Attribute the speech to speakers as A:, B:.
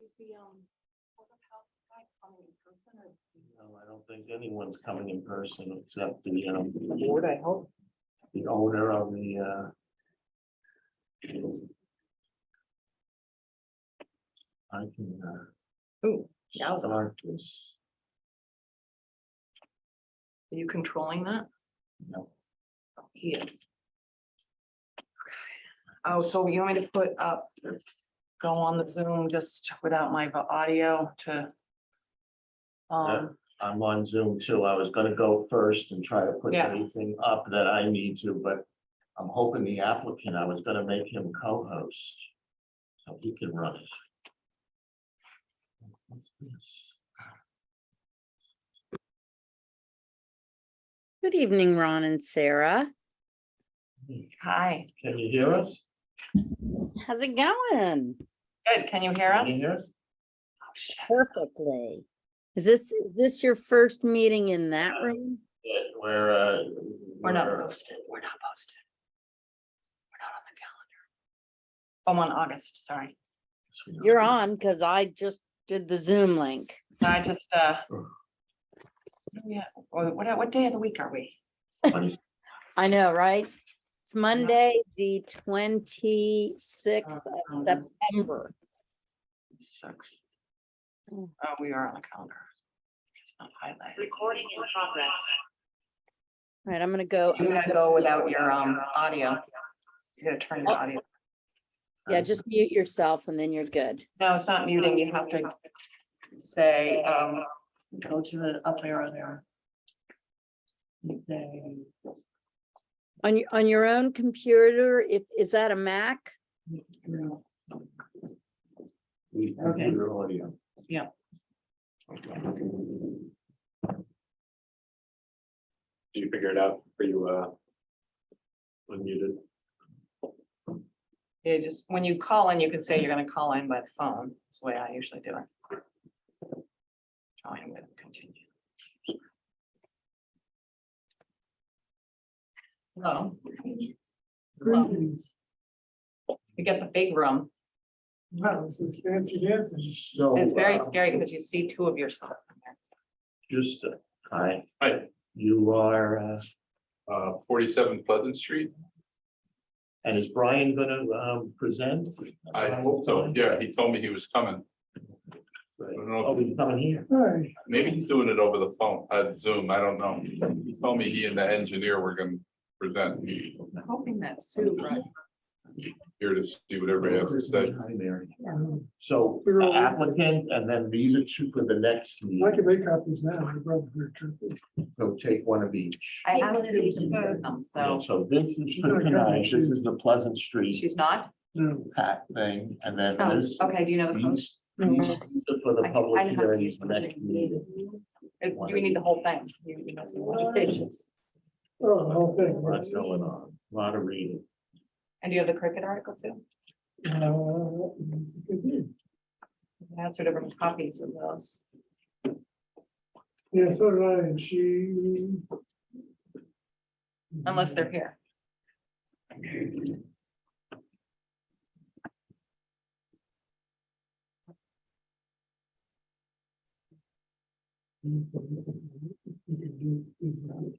A: Is the, um, Board of Health guy coming in person or?
B: No, I don't think anyone's coming in person except the, um,
C: Board, I hope.
B: the owner of the, uh, I can, uh,
C: Ooh, Yowza.
B: start this.
C: are you controlling that?
B: No,
C: Oh, He is. Oh, so you want me to put up, go on the Zoom just without my vo- audio to? Um,
B: I'm on Zoom too. I was gonna go first and try to put
C: Yeah.
B: anything up that I need to, but I'm hoping the applicant, I was gonna make him co-host. So he can run it. What's this?
D: Good evening, Ron and Sarah.
C: hi,
B: Can you hear us?
D: How's it going?
C: good, can you hear
B: Can
C: us?
B: you hear us?
C: Oh, shit.
D: Perfectly. Is this, is this your first meeting in that room?
B: Yeah, We're, uh.
C: We're not posted, we're not posted. We're not on the calendar. I'm on August, sorry.
D: You're on because I just did the Zoom link.
C: I just, uh. Yeah, or what, what day of the week are we?
B: Twenty-sixth
D: I know, right? It's Monday, the twenty-sixth of
C: Um,
D: September.
C: Six. Oh,
D: Mm.
C: we are on the calendar. It's not highlighted.
E: Recording in progress.
D: All right, I'm gonna go,
C: I'm gonna go without your, um, audio. You gotta turn your audio.
D: yeah, just mute yourself and then you're good.
C: No, it's not muting. You have to say, um, go to the up arrow there. Then-
D: On your, on your own computer, if, is that a Mac?
B: we- we
C: Okay.
B: do your audio.
C: Yeah.
F: Did you figure it out? Are you uh? Unmuted?
C: Yeah, just, when you call in, you can say you're gonna call in by the phone. That's the way I usually do it. Trying with continue. Hello. You get the big room.
B: No, this is fancy dancing. So.
C: It's very
B: uh,
C: scary because you see two of yourself. in there.
B: Just, uh, hi,
F: Hi,
B: you are, uh,
F: uh, forty-seven Pleasant Street.
B: and is Brian gonna, um, present?
F: I
B: Uh,
F: hope so. Yeah, he told me he was coming.
B: Right.
F: I don't know.
B: Oh, he's coming here.
F: Maybe he's doing it over the phone, uh, Zoom. I don't know. He told me he and the engineer were gonna present
C: I'm hoping that Sue brought
F: here to see what everybody has to say.
B: Hi, Mary. So applicant, and then these are two for the next
G: I
B: meeting.
G: can make copies now, I brought here too.
B: So take one of each.
C: I
A: Yeah,
C: have
A: what
C: to
A: it is to
C: do
A: vote.
C: them, so
B: So this is for tonight. This is the Pleasant Street
C: she's not?
G: No,
B: pack thing, and then
C: Oh,
B: this.
C: okay, do you know the post?
B: These, these are for Mm-hmm.
C: I-
B: the
C: I
B: public
C: have
B: hearing
C: these
B: for next
C: versions.
B: meeting.
C: It's, you need the whole thing. You- you must have a lot of pages.
G: oh, the whole thing.
B: What's going on? Lot of reading.
C: And do you have the cricket article too?
G: Uh, it did.
C: That's two different copies of those.
G: Yeah, so did I, and she.
C: Unless they're here.
G: You can do-